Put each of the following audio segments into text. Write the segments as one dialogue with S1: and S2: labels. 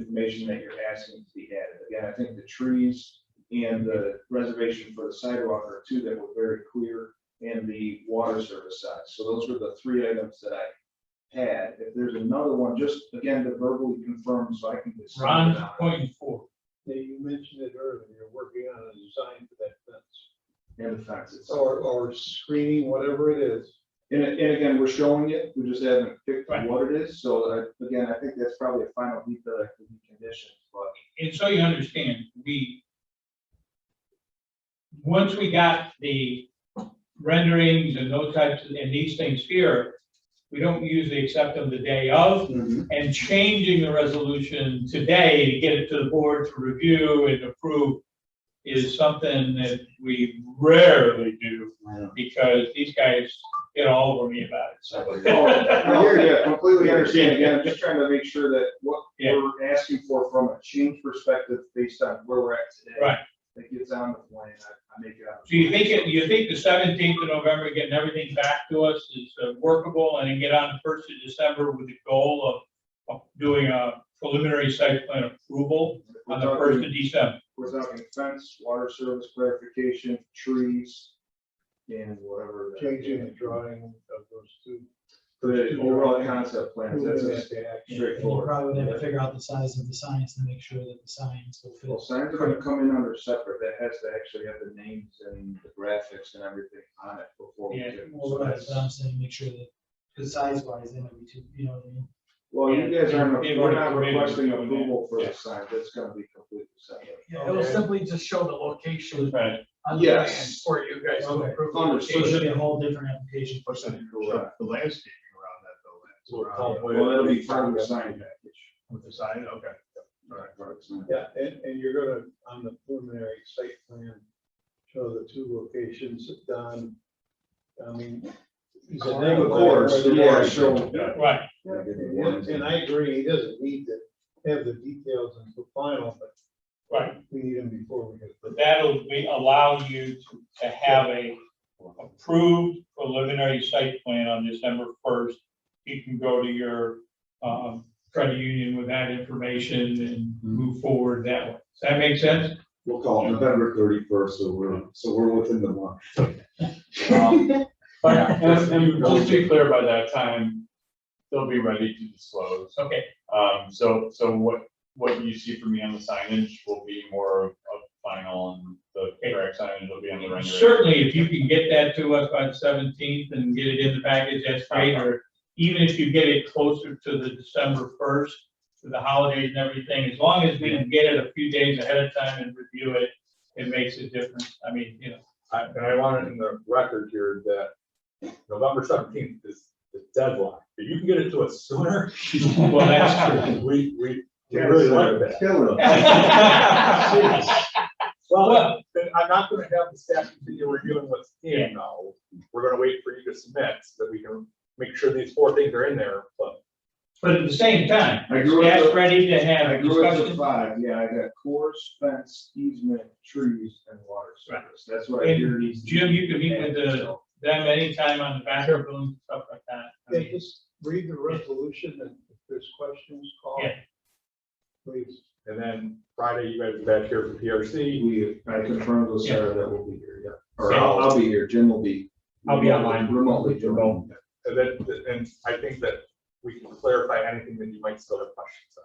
S1: information that you're asking to be added. Again, I think the trees and the reservation for the sidewalk are two that were very clear and the water service side. So those were the three items that I had. If there's another one, just again, to verbally confirm so I can. just send it
S2: Ron's
S1: out.
S2: pointing forward.
S3: Yeah, you mentioned it earlier, you're working on a design for that fence,
S1: And the fence itself.
S3: or, or screening, whatever it is.
S1: And, and again, we're showing it, we just haven't picked
S2: Right.
S1: what it is, so I- again, I think that's probably a final detail that could be conditioned, but.
S2: And so you understand, we, once we got the renderings and those types, of- and these things here, we don't usually accept them the day of, and changing the resolution today to get it to the board to review and approve is something that we rarely do, because these guys get all over me about it, so.
S1: Oh, no, yeah, yeah, completely understand, again, I'm just trying to make sure that what
S2: Yeah.
S1: we're asking for from a change perspective based on where we're at today.
S2: Right.
S1: That gets on the plan, I, I make it out.
S2: So you think, it- you think the seventeenth of November, getting everything back to us is uh, workable and then get on the first of December with the goal of, of doing a preliminary site plan approval
S1: We're
S2: on the
S1: talking-
S2: first of December?
S1: We're talking fence, water service clarification, trees, and whatever. that-
S3: Changing the drawing of those two.
S1: The overall concept plans, that's
S3: Moving
S1: a
S3: it to action.
S4: And you
S1: straightforward.
S4: probably have to figure out the size of the signs to make sure that the signs will
S1: Well,
S4: fit.
S1: signs are gonna come in under separate, that has to actually have the names and the graphics and everything on it before. we
S2: Yeah,
S1: do.
S4: Well,
S1: So
S4: right,
S1: that's-
S4: but I'm saying, make sure that, because size wise, they might be too, you know what I mean?
S1: Well, you
S2: Yeah,
S1: guys aren't,
S2: they've
S1: we're
S2: already
S1: not
S2: committed to
S1: requesting
S2: doing that.
S1: approval for
S2: Yeah.
S1: the sign, that's gonna be completely separate.
S5: Yeah, it'll
S3: Okay.
S5: simply just show the location
S2: Right.
S5: on the land
S1: Yes.
S5: for you guys to
S4: Okay.
S5: approve. the
S1: Understood.
S4: So it
S5: location.
S4: should be a whole different application for something.
S1: Correct.
S6: The landscaping around that though, that's
S3: Well,
S6: around
S3: probably-
S1: Well, that'll be part of the sign package.
S6: with the sign, okay. All right.
S1: Part of the sign.
S3: Yeah, and, and you're gonna, on the preliminary site plan, show the two locations done. I mean. it's a name
S1: Of course,
S3: where the
S1: yeah,
S3: water-
S1: sure.
S2: Right,
S3: And and I agree, he doesn't need to have the details until final, but
S2: right.
S3: we need them before we get.
S2: But that'll be, allow you to, to have a approved preliminary site plan on December first. You can go to your, um, credit union with that information and move forward that way. Does that make sense?
S7: Mm-hmm. We'll call it November thirty-first, so we're, so we're within the month.
S8: Um, But, and, and just to be clear, by that time, they'll be ready to disclose.
S2: Okay,
S8: Um, so, so what, what you see from me on the signage will be more of of final, and the correct signage will be on the rendering.
S2: certainly, if you can get that to us by the seventeenth and get it in the package, that's great, or even if you get it closer to the December first, to the holidays and everything, as long as we can get it a few days ahead of time and review it, it makes a difference. I mean, you know,
S9: I- And I want it in the record here that November seventeenth is the deadline. If you can get it to us sooner,
S2: well, that's true.
S9: we, we we really like that.
S1: Kill it.
S9: Well, then I'm not gonna have the staff continue reviewing what's in now. We're gonna wait for you to submit so that we can make sure these four things are in there, but
S2: But at the same time,
S1: I grew up
S2: that's
S1: with-
S2: ready to
S1: I
S2: have
S1: grew up to
S2: discussion.
S1: five, yeah, I got course, fence, easement, trees, and water service, that's what I
S2: And
S1: hear these.
S2: Jim, you can meet with the- them anytime on the back of them, stuff like that. I
S3: Then
S2: mean,
S3: just read the resolution and if there's questions, call.
S2: Yeah.
S3: Please.
S9: and then Friday, you guys are back here for PRC.
S1: We, I confirmed with Sarah that we'll be here, yeah. Or
S2: Yeah.
S1: I'll, I'll be here, Jim will be.
S2: I'll be online.
S1: Remotely, Jim.
S9: And then, and I think that we can clarify anything that you might still have questions on.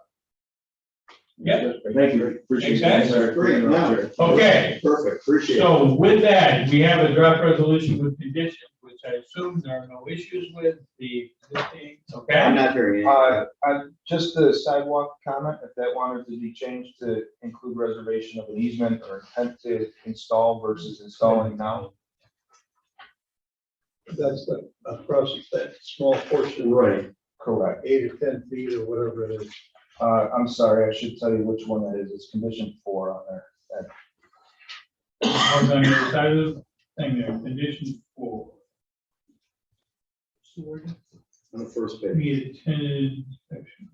S2: Yeah.
S1: Thank you, appreciate that.
S2: Makes
S1: Sarah.
S7: Great, no.
S2: Okay.
S7: Perfect, appreciate it.
S2: So with that, we have a draft resolution with conditions, which I assume there are no issues with the existing,
S7: I'm
S2: okay?
S7: not hearing anything.
S1: Uh, I, just the sidewalk comment, if that wanted to be changed to include reservation of an easement or intent to install versus installing now.
S3: That's the, across that small portion.
S7: Right,
S1: Correct.
S3: Eight or ten feet or whatever it is.
S1: Uh, I'm sorry, I should tell you which one that is. It's condition four on there.
S2: Mark on your side of the thing there, condition four.
S7: on the first page.
S2: We attended section.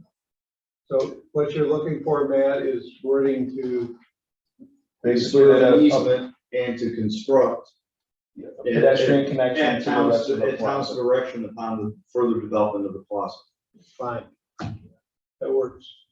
S3: So what you're looking for, Matt, is wording to.
S7: Basically, that easement and to construct.
S1: Pedestrian connection
S7: At
S1: to the
S7: town's,
S1: rest of the
S7: at town's
S1: plaza.
S7: direction upon the further development of the plaza.
S3: Fine. That works.